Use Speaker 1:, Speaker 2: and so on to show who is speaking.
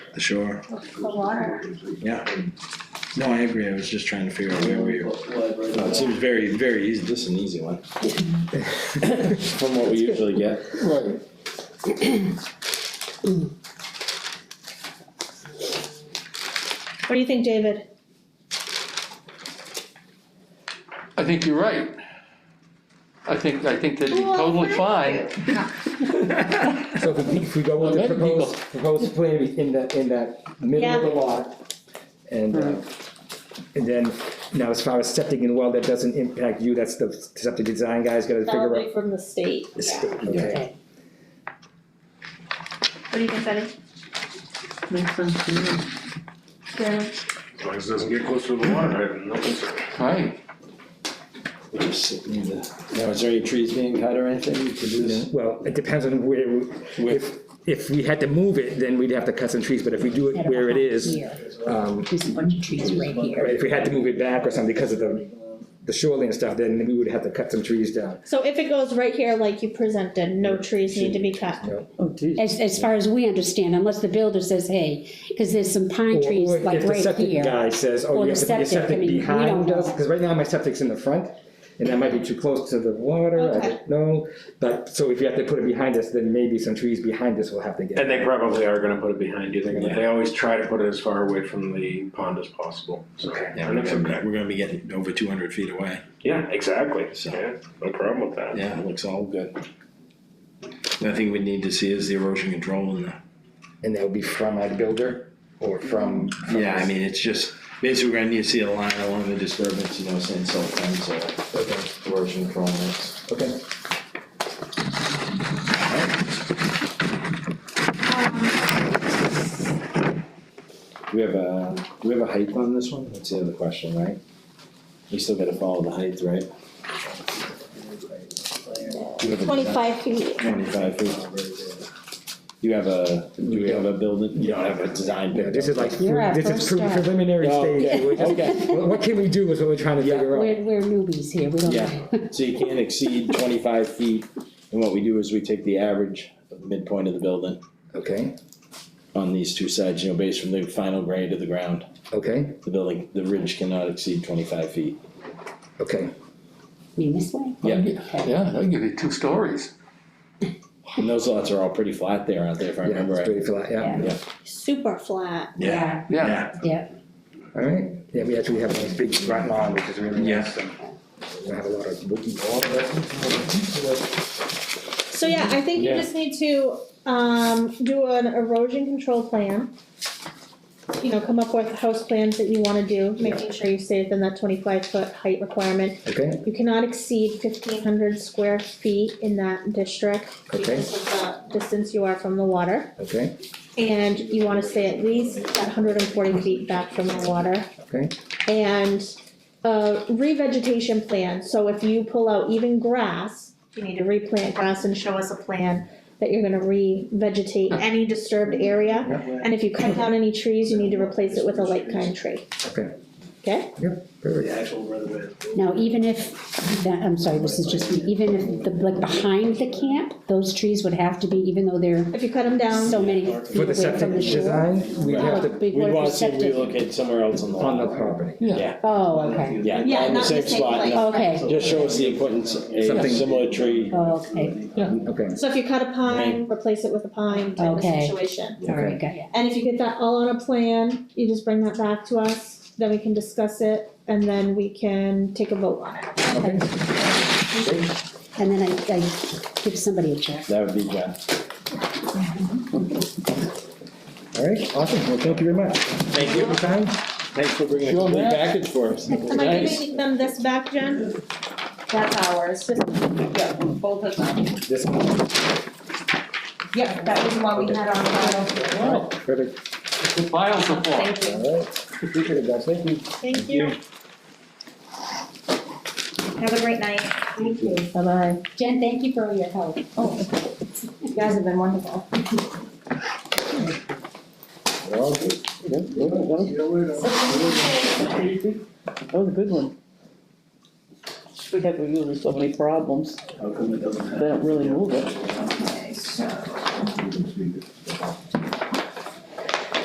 Speaker 1: the shore,
Speaker 2: the water.
Speaker 1: yeah. No, I agree, I was just trying to figure out where we were.
Speaker 3: No, it seems very, very easy, just an easy one. From what we usually get.
Speaker 4: Right.
Speaker 2: What do you think, David?
Speaker 5: I think you're right. I think, I think that'd be totally fine.
Speaker 4: So if we, if we go with the
Speaker 5: Let it be
Speaker 4: proposed, proposed plan in that, in that middle of the lot, and, uh, and then, now as far as septic and well, that doesn't impact you, that's the septic design guy's gotta figure out.
Speaker 2: Probably from the state. Yeah.
Speaker 4: Okay,
Speaker 2: Okay. What do you think, Betty?
Speaker 6: Makes sense to me.
Speaker 2: Yeah.
Speaker 7: As long as it doesn't get closer to the water, I have no concern.
Speaker 5: Right,
Speaker 3: Just need to- Now, is there any trees being cut or anything to do this?
Speaker 4: well, it depends on where, we- if, if we had to move it, then we'd have to cut some trees, but if we do it where it is, um,
Speaker 6: There's a bunch of trees right here.
Speaker 4: right, if we had to move it back or something because of the, the shoreline stuff, then we would have to cut some trees down,
Speaker 2: So if it goes right here like you presented, no trees need to be cut.
Speaker 4: you know?
Speaker 8: As, as far as we understand, unless the builder says, hey, because there's some pine
Speaker 4: Or-
Speaker 8: trees
Speaker 4: or
Speaker 8: like
Speaker 4: If the
Speaker 8: right
Speaker 4: septic
Speaker 8: here.
Speaker 4: guy says,
Speaker 8: Or
Speaker 4: oh, you
Speaker 8: the
Speaker 4: have to put your
Speaker 8: septic, I
Speaker 4: septic
Speaker 8: mean, we don't
Speaker 4: behind
Speaker 8: know.
Speaker 4: us, because right now my septic's in the front, and that might be too close to the water, I
Speaker 2: Okay.
Speaker 4: don't know. But, so if you have to put it behind us, then maybe some trees behind us will have to get.
Speaker 7: And they probably are gonna put it behind you, they're gonna, they always try to put it as far away from the pond as possible, so.
Speaker 1: Yeah,
Speaker 7: I
Speaker 1: we're
Speaker 7: think it's
Speaker 1: gonna,
Speaker 7: okay.
Speaker 1: be- we're gonna be getting over two hundred feet away,
Speaker 7: Yeah, exactly,
Speaker 1: So-
Speaker 7: yeah, no problem with that.
Speaker 1: yeah, it looks all good. The thing we need to see is the erosion control and the,
Speaker 4: And that would be from a builder, or from. from
Speaker 1: yeah, I
Speaker 4: us.
Speaker 1: mean, it's just, basically, we're gonna need to see a line along the disturbance, you know, saying silt fence or
Speaker 4: Okay,
Speaker 1: erosion control mix.
Speaker 4: okay,
Speaker 3: Do we have a, do we have a height on this one? That's the other question, right? We still gotta follow the height, right? Do you have a-
Speaker 2: Twenty-five feet.
Speaker 3: Twenty-five feet. You have a, do we have a building, you don't have a design
Speaker 4: yeah,
Speaker 3: build?
Speaker 4: this is like,
Speaker 8: You're our
Speaker 4: this is
Speaker 8: first
Speaker 4: pre-
Speaker 8: step.
Speaker 4: preliminary
Speaker 3: Oh,
Speaker 4: stage,
Speaker 3: okay,
Speaker 4: We're just-
Speaker 3: okay.
Speaker 4: what, what can we do is what we're trying to
Speaker 3: Yeah.
Speaker 4: figure out.
Speaker 8: We're, we're newbies here, we don't know.
Speaker 3: So you can't exceed twenty-five feet, and what we do is we take the average of the midpoint of the building
Speaker 4: Okay,
Speaker 3: on these two sides, you know, based from the final grade of the ground.
Speaker 4: okay,
Speaker 3: The building, the ridge cannot exceed twenty-five feet.
Speaker 4: okay,
Speaker 8: I mean, this way?
Speaker 3: Yeah.
Speaker 5: yeah, that'll give you two stories.
Speaker 3: And those lots are all pretty flat there, aren't they, if I
Speaker 4: yeah,
Speaker 3: remember
Speaker 4: it's
Speaker 3: right?
Speaker 4: pretty flat, yeah,
Speaker 2: Super flat.
Speaker 1: Yeah.
Speaker 5: Yeah,
Speaker 8: Yeah,
Speaker 4: alright, yeah, we actually have a nice big front lawn, which is really
Speaker 1: Yeah.
Speaker 4: nice, and we have a lot of wooden walls.
Speaker 2: So yeah, I think you
Speaker 3: Yeah.
Speaker 2: just need to, um, do an erosion control plan. You know, come up with house plans that you wanna do, making sure you stay within that twenty-five foot height requirement.
Speaker 4: Okay,
Speaker 2: You cannot exceed fifteen hundred square feet in that district
Speaker 4: Okay.
Speaker 2: because of the distance you are from the water.
Speaker 4: okay,
Speaker 2: And you wanna stay at least at hundred and forty feet back from the water.
Speaker 4: okay,
Speaker 2: And a revegetation plan, so if you pull out even grass, you need to replant grass and show us a plan that you're gonna revegetate any disturbed area. And if you cut down any trees, you need to replace it with a light kind tree.
Speaker 4: Okay.
Speaker 2: Okay?
Speaker 4: very
Speaker 8: now even if, that- I'm sorry, this is just, me. even if, the like, behind the camp, those trees would have to be, even though they're
Speaker 2: If you cut them down.
Speaker 8: so many
Speaker 4: For
Speaker 8: feet
Speaker 4: the
Speaker 8: away
Speaker 4: septic
Speaker 8: from the shore.
Speaker 4: design, we
Speaker 3: Right.
Speaker 4: have
Speaker 8: Oh,
Speaker 4: to,
Speaker 8: big
Speaker 3: We'd
Speaker 8: word for
Speaker 3: wanna see if we
Speaker 8: septic.
Speaker 3: locate somewhere else on the
Speaker 4: on the
Speaker 3: lot.
Speaker 4: property.
Speaker 8: Oh, okay,
Speaker 3: Yeah,
Speaker 2: Yeah,
Speaker 3: on the
Speaker 2: not in
Speaker 3: same
Speaker 2: the same
Speaker 3: spot,
Speaker 2: place.
Speaker 3: yeah.
Speaker 8: okay,
Speaker 3: Just show us the importance, a
Speaker 4: Something-
Speaker 3: similar tree,
Speaker 8: oh, okay,
Speaker 4: Okay,
Speaker 2: So if you cut a pine, replace it with a pine type of
Speaker 8: Okay.
Speaker 2: situation.
Speaker 8: all right, got ya.
Speaker 2: And if you get that all on a plan, you just bring that back to us, then we can discuss it, and then we can take a vote on it.
Speaker 4: okay,
Speaker 8: And then I, I give somebody a check.
Speaker 3: that would be John.
Speaker 4: all right, awesome, well, thank you very much.
Speaker 3: Thank
Speaker 4: Your time?
Speaker 3: Thanks for bringing a
Speaker 5: Sure,
Speaker 3: complete
Speaker 5: man.
Speaker 3: package for us.
Speaker 2: Am I giving them this back, Jen?
Speaker 6: That's ours. Yeah, both of them.
Speaker 4: This one,
Speaker 6: Yeah, that was the one we had on file.
Speaker 4: wow, perfect,
Speaker 5: The files are full.
Speaker 6: Thank you.
Speaker 4: all right, appreciate it, guys, thank you.
Speaker 2: Thank you.
Speaker 6: Have a great night. Thank you.
Speaker 8: Bye-bye. Jen, thank you for all your help.
Speaker 6: Oh, you guys have been wonderful.
Speaker 4: We're all good.
Speaker 6: That was a good one. We have, we're using so many problems. They don't really move it.
Speaker 9: Okay, so.